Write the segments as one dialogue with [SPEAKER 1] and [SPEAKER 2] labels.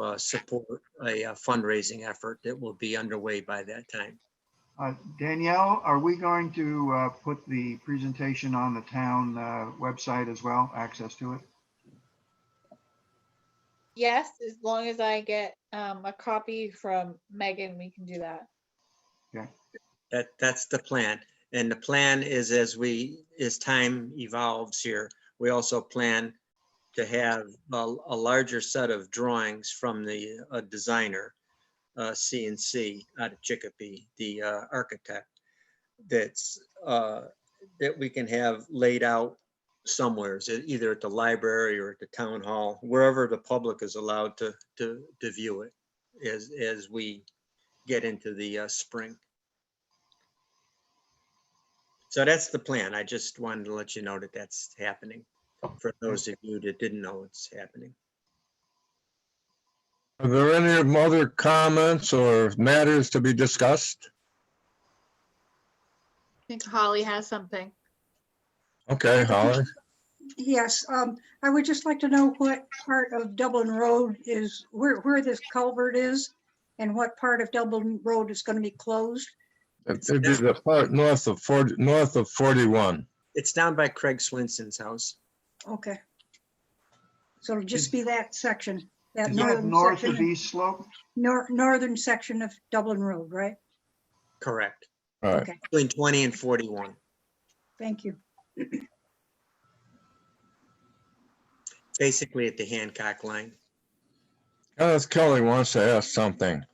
[SPEAKER 1] uh, support a uh, fundraising effort that will be underway by that time.
[SPEAKER 2] Uh, Danielle, are we going to uh, put the presentation on the town uh, website as well, access to it?
[SPEAKER 3] Yes, as long as I get um, a copy from Megan, we can do that.
[SPEAKER 1] That, that's the plan. And the plan is as we, as time evolves here, we also plan to have a, a larger set of drawings from the uh, designer, uh, CNC out of Chicopee, the uh, architect, that's, uh, that we can have laid out somewheres, e- either at the library or at the town hall, wherever the public is allowed to, to, to view it as, as we get into the uh, spring. So that's the plan. I just wanted to let you know that that's happening. For those of you that didn't know it's happening.
[SPEAKER 4] Are there any other comments or matters to be discussed?
[SPEAKER 3] I think Holly has something.
[SPEAKER 4] Okay, Holly.
[SPEAKER 5] Yes, um, I would just like to know what part of Dublin Road is, where, where this culvert is and what part of Dublin Road is going to be closed.
[SPEAKER 4] It would be the part north of forty, north of forty-one.
[SPEAKER 1] It's down by Craig Swenson's house.
[SPEAKER 5] Okay. So it'll just be that section, that
[SPEAKER 2] Is that
[SPEAKER 5] northern
[SPEAKER 2] north of
[SPEAKER 5] section,
[SPEAKER 2] East Slope?
[SPEAKER 5] nor- northern section of Dublin Road, right?
[SPEAKER 1] Correct.
[SPEAKER 4] All right.
[SPEAKER 5] Okay,
[SPEAKER 1] Between 20 and 41.
[SPEAKER 5] thank you.
[SPEAKER 1] Basically at the Hancock line.
[SPEAKER 4] Kenneth Kelly wants to ask something.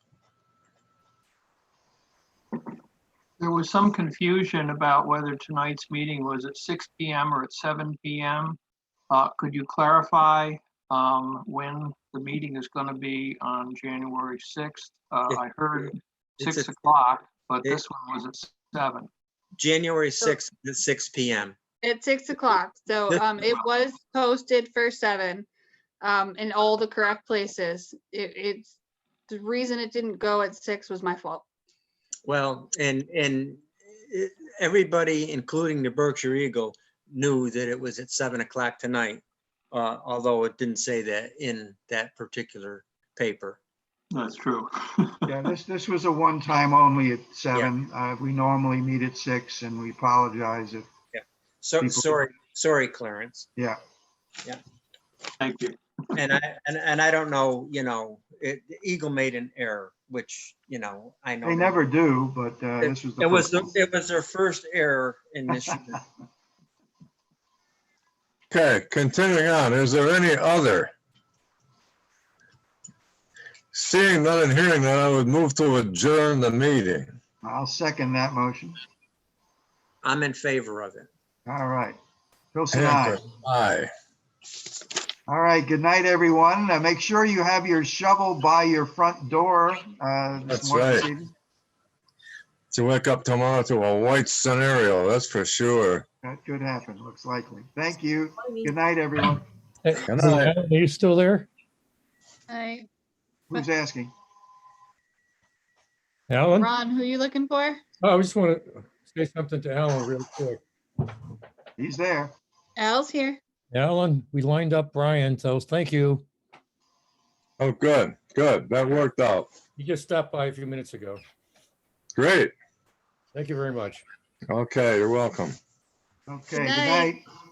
[SPEAKER 6] There was some confusion about whether tonight's meeting was at six PM or at seven PM. Uh, Could you clarify um, when the meeting is going to be on January 6th? Uh, I heard
[SPEAKER 1] It's
[SPEAKER 6] 6
[SPEAKER 1] at-
[SPEAKER 6] o'clock, but
[SPEAKER 1] it-
[SPEAKER 6] this one was at 7.
[SPEAKER 1] January 6th at 6 PM.
[SPEAKER 3] At six o'clock, so
[SPEAKER 1] This-
[SPEAKER 3] um, it was posted for seven, um, in all the correct places. It, it's, the reason it didn't go at six was my fault.
[SPEAKER 1] Well, and, and it- everybody, including the Berkshire Eagle, knew that it was at seven o'clock tonight. Uh, although it didn't say that in that particular paper.
[SPEAKER 6] That's true.
[SPEAKER 2] Yeah, this, this was a one-time only at seven. Uh, We normally meet at six and we apologize if,
[SPEAKER 1] So,
[SPEAKER 2] People-
[SPEAKER 1] sorry, sorry, Clarence.
[SPEAKER 2] yeah.
[SPEAKER 6] Thank you.
[SPEAKER 1] And I, and, and I don't know, you know, it, Eagle made an error, which, you know, I know.
[SPEAKER 2] They never do, but uh, this was the.
[SPEAKER 1] It was,
[SPEAKER 2] first
[SPEAKER 1] the-
[SPEAKER 2] one.
[SPEAKER 1] it was their first error in this. year.
[SPEAKER 4] Okay, continuing on, is there any other? Seeing none and hearing none, I would move to adjourn the meeting.
[SPEAKER 2] I'll second that motion.
[SPEAKER 1] I'm in favor of it.
[SPEAKER 2] All right. Pilson, aye.
[SPEAKER 4] Hanford, Aye.
[SPEAKER 2] All right, good night, everyone. Uh, Make sure you have your shovel by your front door. uh, this
[SPEAKER 4] That's
[SPEAKER 2] morning,
[SPEAKER 4] right.
[SPEAKER 2] this evening.
[SPEAKER 4] To wake up tomorrow to a white scenario, that's for sure.
[SPEAKER 2] That could happen, looks likely. Thank you. Good night, everyone.
[SPEAKER 7] Hey,
[SPEAKER 4] Good night.
[SPEAKER 7] Are you still there?
[SPEAKER 3] I,
[SPEAKER 2] Who's asking?
[SPEAKER 7] Alan?
[SPEAKER 3] Ron, who you looking for?
[SPEAKER 7] Oh, I just want to say something to Alan real quick.
[SPEAKER 2] He's there.
[SPEAKER 3] Al's here.
[SPEAKER 7] Alan, we lined up Brian, so thank you.
[SPEAKER 4] Oh, good, good. That worked out.
[SPEAKER 7] He just stopped by a few minutes ago.
[SPEAKER 4] Great.
[SPEAKER 7] Thank you very much.
[SPEAKER 4] Okay, you're welcome.
[SPEAKER 2] Okay, good
[SPEAKER 3] night.
[SPEAKER 2] night.